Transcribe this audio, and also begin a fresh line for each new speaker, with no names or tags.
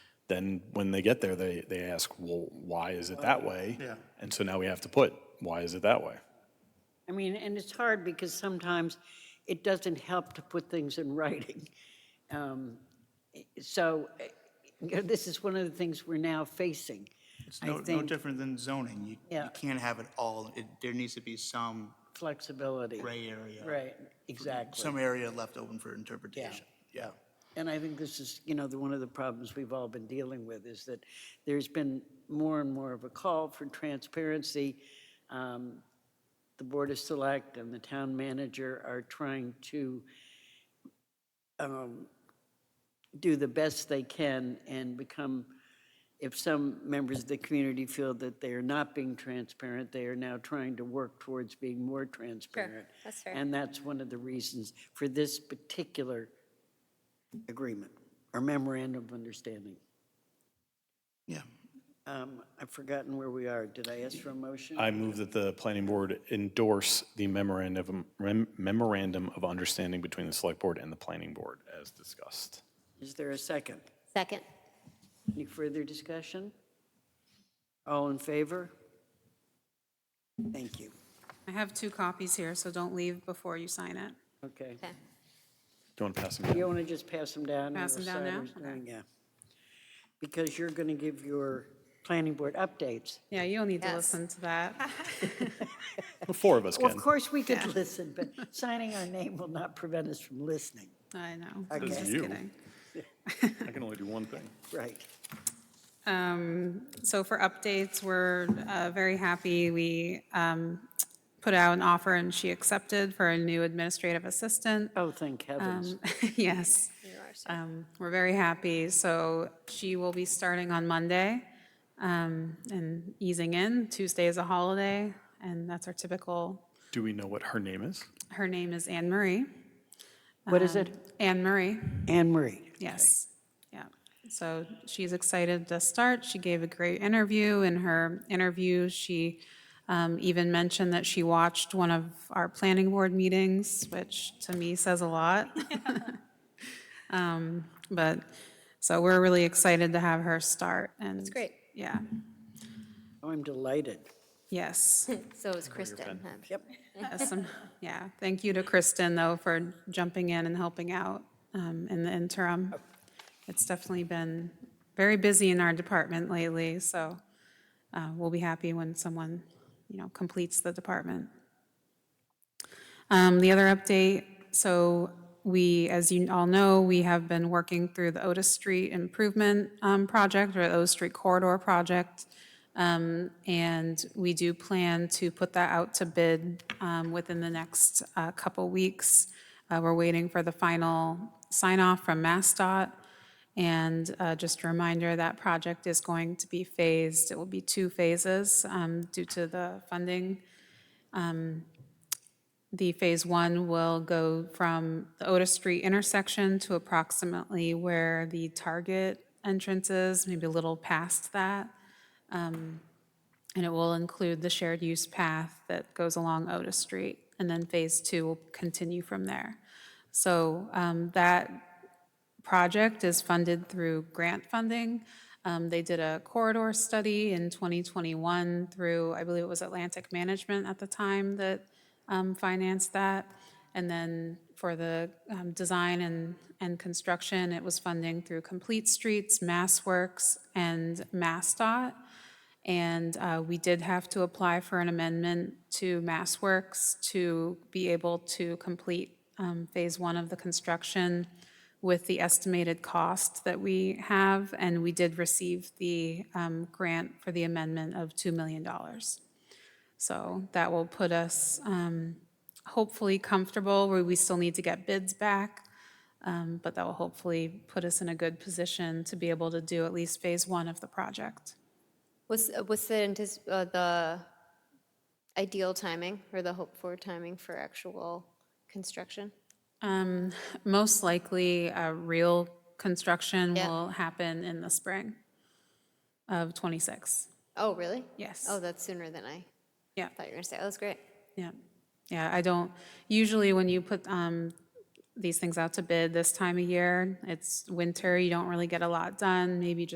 then when they get there, they, they ask, well, why is it that way?
Yeah.
And so now we have to put, why is it that way?
I mean, and it's hard because sometimes it doesn't help to put things in writing. Um, So eh, you know, this is one of the things we're now facing.
It's
I
no, no
think-
different than zoning. You,
Yeah.
you can't have it all. It, there needs to be some
Flexibility.
gray area.
Right, exactly.
Some area left open for interpretation. Yeah.
And I think this is, you know, the, one of the problems we've all been dealing with is that there's been more and more of a call for transparency. Um, The Board of Select and the town manager are trying to um, do the best they can and become, if some members of the community feel that they are not being transparent, they are now trying to work towards being more transparent.
that's fair.
And that's one of the reasons for this particular agreement or memorandum of understanding.
Yeah.
Um, I've forgotten where we are. Did I ask for a motion?
I move that the planning board endorse the memorandum, rem- memorandum of understanding between the select board and the planning board as discussed.
Is there a second?
Second.
Any further discussion? All in favor? Thank you.
I have two copies here, so don't leave before you sign it.
Okay.
Okay.
Do you want to pass them down?
You want to just pass them down? and
Pass them
we'll
down
decide
now?
who's doing-
Okay.
Yeah. Because you're going to give your planning board updates.
Yeah, you'll need to
Yes.
listen to that.
The four of us
Well,
can.
of course, we could listen, but signing our name will not prevent us from listening.
I know.
Okay.
Just
You.
kidding.
I can only do one thing.
Right.
Um, So for updates, we're uh, very happy. We um, put out an offer and she accepted for a new administrative assistant.
Oh, thank heavens.
Um, Yes. Um, We're very happy. So she will be starting on Monday um, and easing in. Tuesday is a holiday, and that's our typical,
Do we know what her name is?
her name is Anne Marie.
What is it?
Anne Marie,
Anne Marie.
um, yes. Yeah. So she's excited to start. She gave a great interview. In her interview, she um, even mentioned that she watched one of our planning board meetings, which to me says a lot. Um, But, so we're really excited to have her start and. That's
great.
Yeah,
Oh, I'm delighted.
yes.
So is Kristen. huh?
Yep.
Yes, um, Yeah, thank you to Kristen, though, for jumping in and helping out um, in the interim. It's definitely been very busy in our department lately, so uh, we'll be happy when someone, you know, completes the department. Um, The other update, so we, as you all know, we have been working through the Otis Street Improvement um, Project, or Otis Street Corridor Project. Um, And we do plan to put that out to bid um, within the next uh, couple weeks. Uh, We're waiting for the final sign-off from MassDOT. And uh, just a reminder, that project is going to be phased. It will be two phases um, due to the funding. Um, The Phase 1 will go from the Otis Street intersection to approximately where the Target entrance is, maybe a little past that. Um, And it will include the shared use path that goes along Otis Street. And then Phase 2 will continue from there. So um, that project is funded through grant funding. Um, They did a corridor study in 2021 through, I believe it was Atlantic Management at the time that um, financed that. And then for the um, design and, and construction, it was funding through Complete Streets, MassWorks, and MassDOT. And uh, we did have to apply for an amendment to MassWorks to be able to complete um, Phase One of the construction with the estimated cost that we have, and we did receive the um, grant for the amendment of $2 million. So that will put us um, hopefully comfortable, where we still need to get bids back, um, but that will hopefully put us in a good position to be able to do at least Phase One of the project.
What's, uh, what's the, antis- uh, the ideal timing or the hope for timing for actual construction?
Um, Most likely, uh, real construction
Yeah.
will happen in the spring of '26.
Oh, really?
Yes.
Oh, that's sooner than I
Yeah.
thought you were gonna say. Oh, that's great.
Yeah, yeah, I don't, usually when you put um, these things out to bid this time of year, it's winter, you don't really get a lot done, maybe just